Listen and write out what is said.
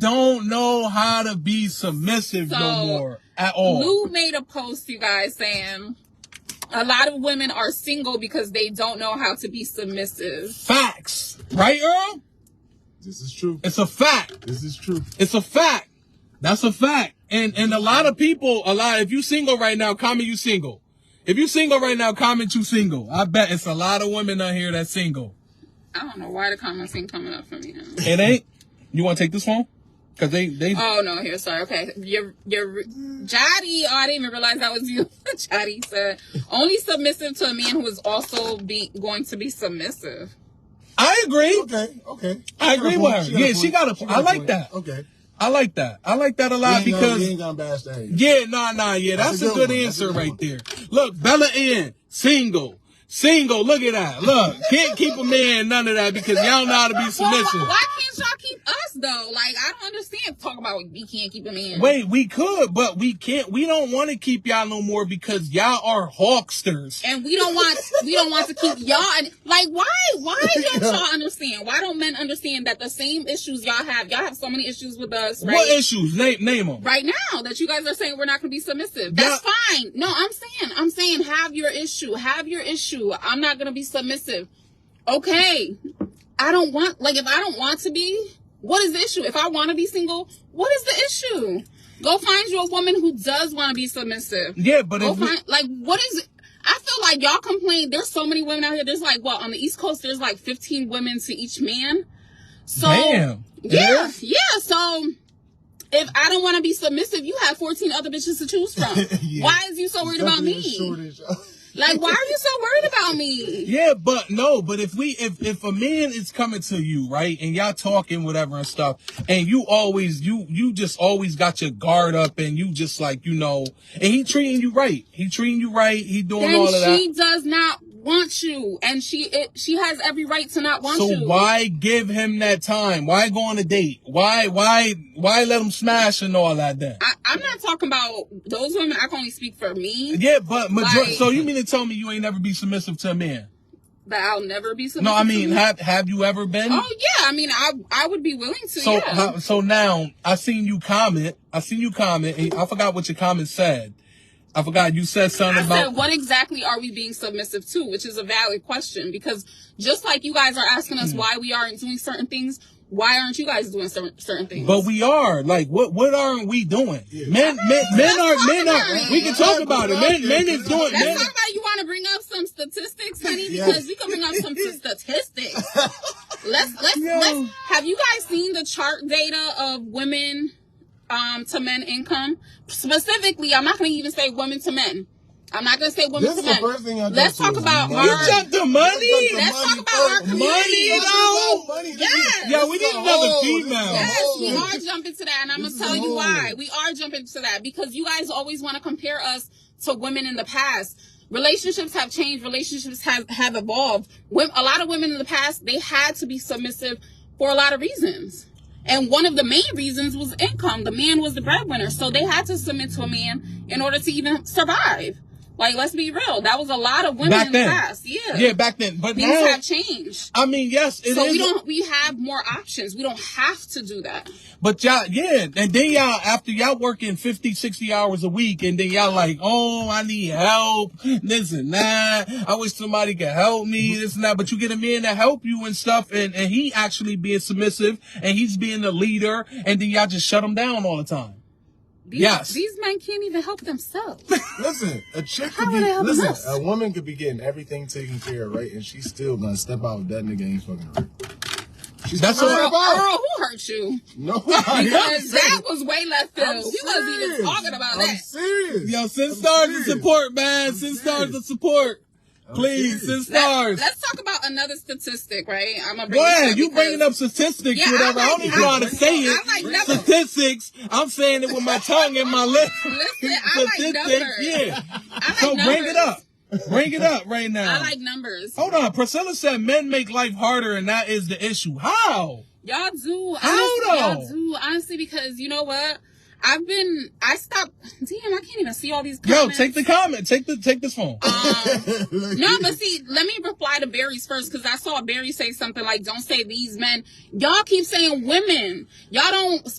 don't know how to be submissive no So, more at all. Lou made a post, you guys, saying a lot of women are single because they don't know how to be submissive. Facts, right, Earl? This is true. It's a fact. This is true. It's a fact. That's a fact. And and a lot of people, a lot. If you single right now, comment you single. If you single right now, comment you single. I bet it's a lot of women out here that's single. I don't know why the comments ain't coming up for me now. It ain't. You want to take this one? Cause they they. Oh no, here, sorry. Okay, your your Jody. Oh, I didn't even realize that was you. Jody said only submissive to a man who is also be going to be submissive. I agree. Okay, okay. I agree She with got a point. her. Yeah, she point. got a- I a like point. that. Okay. I like that. I like that a lot You ain't gonna- because you ain't gonna bash that. either. Yeah, nah, nah, yeah. That's, a good, one. That's answer a good right one. there. Look, Bella in single, single. Look at that. Look, can't keep a man none of that because y'all know how to be submissive. Why can't y'all keep us though? Like I don't understand. Talk about we can't keep a man. Wait, we could, but we can't. We don't want to keep y'all no more because y'all are hawksters. and we don't want we don't want to keep y'all and, like why why don't y'all understand why don't men understand that the same issues y'all have y'all have so many issues with us right What issues? Name name them. right now that you guys are saying we're not going to be submissive that's Yeah. fine no i'm saying i'm saying have your issue have your issue i'm not going to be submissive okay i don't want like if i don't want to be what is the issue if i want to be single what is the issue go find you a woman who does want to be submissive Yeah, but Go if we, find, like, what is it? I feel like y'all complain. There's so many women out here. There's like, what, on the East Coast, there's like 15 women to each man. So, damn. yeah, yeah. So, if I don't want to be submissive, you have 14 other bitches to choose from. Yeah. Why is you so worried about Definitely me? a shortage. Like, why are you so worried about me? Yeah, but no, but if we if if a man is coming to you, right, and y'all talking whatever and stuff, and you always you you just always got your guard up and you just like, you know, and he treating you right. He treating you right, he doing all Then of she that. does not want you, and she it, she has every right to not want So you. why give him that time? Why go on a date? Why why why let him smash and all that then? I, I'm not talking about those women. I can only speak for me, Yeah, but major- Like- so you mean to tell me you ain't never be submissive to a man? but I'll never be submissive. No, I to mean, men. have have you ever been? Mm-hmm. Oh yeah, I mean, I I would be willing to. Mm. So yeah. how- so now I seen you comment. I seen you comment, and I forgot what your comment said. I forgot you said I something said, about what exactly are we being submissive to? Which is a valid question because just like you guys are asking Mm. us why we aren't doing certain things, why aren't you guys doing certain certain things? but we are like what what aren't we doing? Men men men are men are we can talk about it. Men men is doing That's men. not why you want to bring up some statistics, honey, Yeah. because we can bring up some t- statistics. let's let's Yo. let's. Have you guys seen the chart data of women um, to men income? Specifically, I'm not going to even say women to men. I'm not going to say women This to is the men. first thing I Let's go talk to is about money. You our. jumped the money. Let's Let's talk money about our first. community. Money, though. Money. Yes. Yeah, we need another female. Yes, we Yes, are jumping to that, and I'm This gonna is tell a you whole- why. We are jumping to that because you guys always want to compare us to women in the past. Relationships have changed. Relationships have have evolved. Wom- a lot of women in the past they had to be submissive for a lot of reasons, and one of the main reasons was income. The man was the breadwinner, so they had to submit to a man in order to even survive. Like, let's be real, that was a lot of women Back in the then. past. Yeah, Yeah, back then, but things now have changed. I mean, yes, it is. So we don't. We have more options. We don't have to do that. But y'all, yeah, and then y'all, after y'all working 50, 60 hours a week, and then y'all like, oh, I need help, this and that. I wish somebody could help me, Mm-hmm. this and that. But you get a man to help you and stuff, and, and he actually being submissive, and he's being the leader, and then y'all just shut him down all the time. These, Yes. These men can't even help themselves. Listen, a chick How could be would I help listen, us? a woman could be getting everything taken care of, right? And she's still gonna step out that nigga ain't fucking her. She's That's gonna all- Earl, step out. Earl, who hurt you? No, Uh, Because that was way left I'm field. We wasn't even serious. talking about I'm that. serious. Yo, send I'm stars of serious. support, man. I'm Send serious. stars of support. Please, serious. send Let- stars. Let's talk about another statistic, right? I'm gonna bring Go this ahead. You because- bringing up statistics, Yeah, I whatever. I, like- don't even know how to I- say it. I like numbers. statistics. I'm saying it with my tongue and my lips. Listen, I like numbers. Statistics. Yeah. I like So numbers. bring it up. Oh. Bring it up right now. I like numbers. Hold on. Priscilla said men make life harder, and that is the issue. How? Y'all do. How honestly, Y'all though? do. Honestly, because you know what? I've been. I stopped. Damn, I can't even see all these Yo, comments. take the comment. Take the take this phone. Um, Look, No, but see, let me reply to Barry's first because I saw Barry say something like, "Don't say these men." Y'all keep saying women. Y'all don't